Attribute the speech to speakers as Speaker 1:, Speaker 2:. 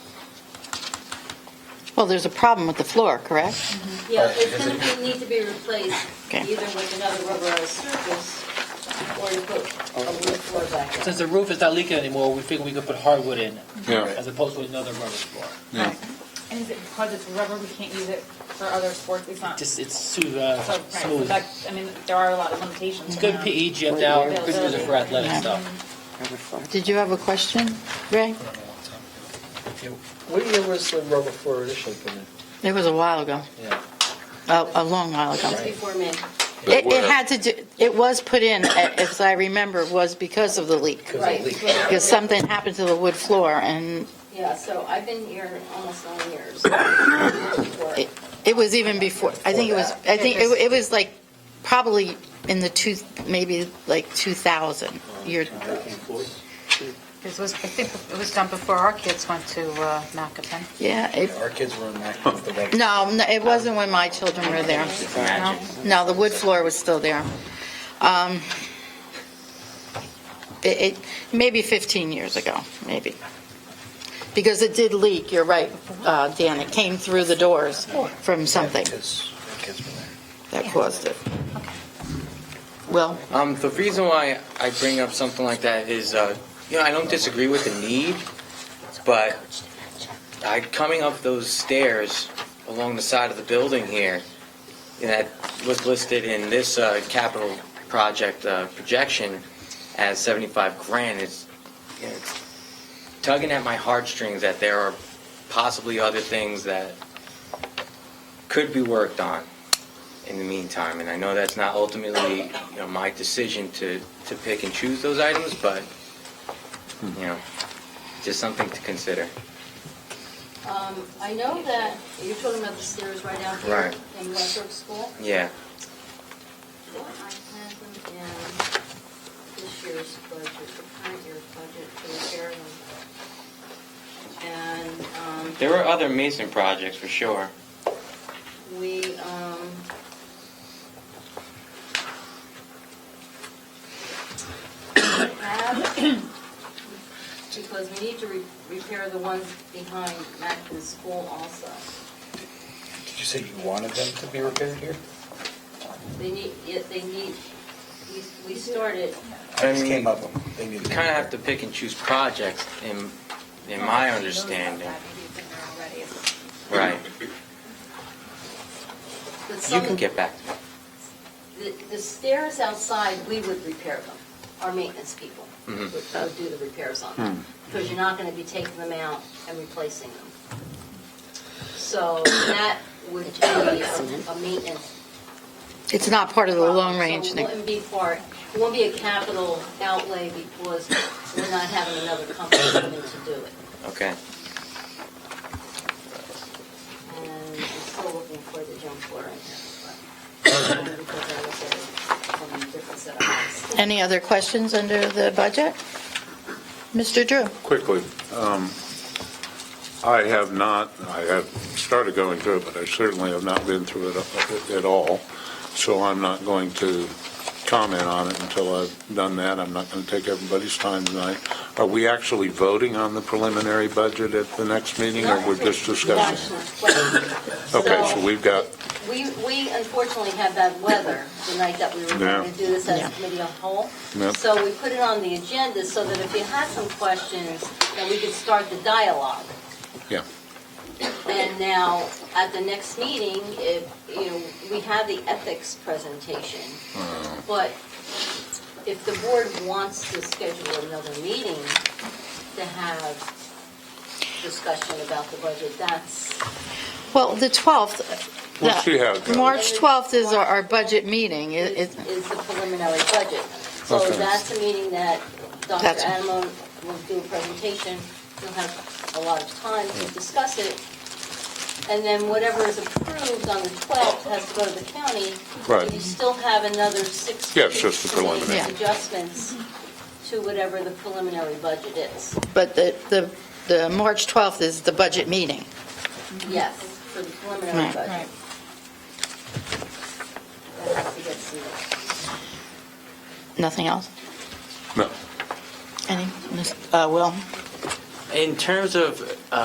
Speaker 1: Well, there's a problem with the floor, correct?
Speaker 2: Yeah, it's gonna be, need to be replaced
Speaker 1: Okay.
Speaker 2: either with another rubberized surface or to put a wood floor back in.
Speaker 3: Since the roof is not leaking anymore, we figured we could put hardwood in it,
Speaker 4: Yeah,
Speaker 3: as opposed to another rubber floor.
Speaker 4: yeah.
Speaker 5: And is it because it's rubber, we can't use it for other sports, it's not?
Speaker 3: Just, it's too uh,
Speaker 5: So, right, so
Speaker 3: smooth.
Speaker 5: that, I mean, there are a lot of
Speaker 3: It's
Speaker 5: limitations.
Speaker 3: good E.
Speaker 5: around-
Speaker 3: PE gym now, good for the- for athletic
Speaker 1: Yeah.
Speaker 3: stuff.
Speaker 1: Did you have a question, Ray?
Speaker 6: What year was the rubber floor initially put in?
Speaker 1: It was a while ago,
Speaker 6: Yeah.
Speaker 1: a, a long while ago.
Speaker 2: That's before me.
Speaker 1: It, it had to do, it was put in, as I remember, was because of the leak.
Speaker 2: Right.
Speaker 1: Because something happened to the wood floor and
Speaker 2: Yeah, so I've been here almost nine years.
Speaker 1: It- It was even before, I think it was, I think it it was like, probably in the two, maybe like 2000, year,
Speaker 7: It was, I think it was done before our kids went to uh, Macapin.
Speaker 1: yeah. it-
Speaker 6: Our kids were in that with the rubber.
Speaker 1: No, no, it wasn't when my children were there.
Speaker 7: No?
Speaker 1: No, the wood floor was still there. Um, It, it- maybe 15 years ago, maybe. Because it did leak, you're right, uh, Dan, it came through the doors from something
Speaker 6: Because our kids were there.
Speaker 1: that caused it. Well,
Speaker 8: Um, the reason why I bring up something like that is, uh, you know, I don't disagree with the need, but I coming up those stairs along the side of the building here, and that was listed in this uh, capital project uh, projection as 75 grand. It's, you know, it's tugging at my heartstrings that there are possibly other things that could be worked on in the meantime, and I know that's not ultimately, you know, my decision to, to pick and choose those items, but, you know, just something to consider.
Speaker 2: Um, I know that, you're talking about the stairs right out here.
Speaker 8: Right.
Speaker 2: In Westbrook School.
Speaker 8: Yeah,
Speaker 2: What I had them down this year's budget, the current year's budget to repair them. And, um.
Speaker 8: there were other Mason projects for sure.
Speaker 2: We, um, have, because we need to re- repair the ones behind Mackin School also.
Speaker 6: Did you say you wanted them to be repaired here?
Speaker 2: They need, yet they need, we- we started,
Speaker 8: I
Speaker 6: I just
Speaker 8: mean,
Speaker 6: came up with them. They needed
Speaker 8: You
Speaker 6: to be
Speaker 8: kind of have to
Speaker 6: repaired.
Speaker 8: pick and choose projects in, in my understanding. Right,
Speaker 2: but
Speaker 8: you
Speaker 2: some,
Speaker 8: can get back to me.
Speaker 2: the the stairs outside, we would repair them. Our maintenance people would
Speaker 8: Mhm.
Speaker 2: would do the repairs on
Speaker 1: Hmm.
Speaker 2: them, because you're not going to be taking them out and replacing them. So that would be a a maintenance.
Speaker 1: it's not part of the long
Speaker 2: problem.
Speaker 1: range.
Speaker 2: So it wouldn't be part, it wouldn't be a capital outlay because we're not having another company come in to do it.
Speaker 8: Okay,
Speaker 2: And I'm still looking for the junk floor in here, but, uh, because I was at a different set of eyes.
Speaker 1: Any other questions under the budget? Mr. Drew?
Speaker 4: Quickly, um, I have not, I have started going through it, but I certainly have not been through it uh, at all, so I'm not going to comment on it until I've done that. I'm not going to take everybody's time tonight. Are we actually voting on the preliminary budget at the next meeting, or we're just discussing?
Speaker 2: Gotcha.
Speaker 4: Okay, so we've got,
Speaker 2: We, we unfortunately had bad weather the night that we were going
Speaker 4: Yeah.
Speaker 2: to do this as
Speaker 1: Yeah.
Speaker 2: a committee on whole.
Speaker 4: Yeah.
Speaker 2: So we put it on the agenda so that if you had some questions, that we could start the dialogue.
Speaker 4: yeah,
Speaker 2: And now, at the next meeting, if, you know, we have the ethics presentation.
Speaker 4: Oh.
Speaker 2: But if the board wants to schedule another meeting to have discussion about the budget, that's,
Speaker 1: Well, the 12th,
Speaker 4: we'll see how it goes.
Speaker 1: March 12th is our, our budget meeting. It-
Speaker 2: is
Speaker 1: it-
Speaker 2: is the preliminary budget. So
Speaker 4: Okay.
Speaker 2: that's a meeting that Dr.
Speaker 1: That's-
Speaker 2: Adamo will do a presentation. You'll have a lot of time to discuss it. And then whatever is approved on the 12th has to go to the county.
Speaker 4: Right.
Speaker 2: You still have another six.
Speaker 4: Yeah, it's just the
Speaker 2: weeks to make
Speaker 4: preliminary.
Speaker 2: Adjustments to whatever the preliminary budget is.
Speaker 1: But the, the, the March 12th is the budget meeting.
Speaker 2: Yes, for the preliminary
Speaker 1: Right.
Speaker 2: budget.
Speaker 7: Right.
Speaker 2: That has to get submitted.
Speaker 1: Nothing else?
Speaker 4: No.
Speaker 1: Any, Miss- uh, Will?
Speaker 8: In terms of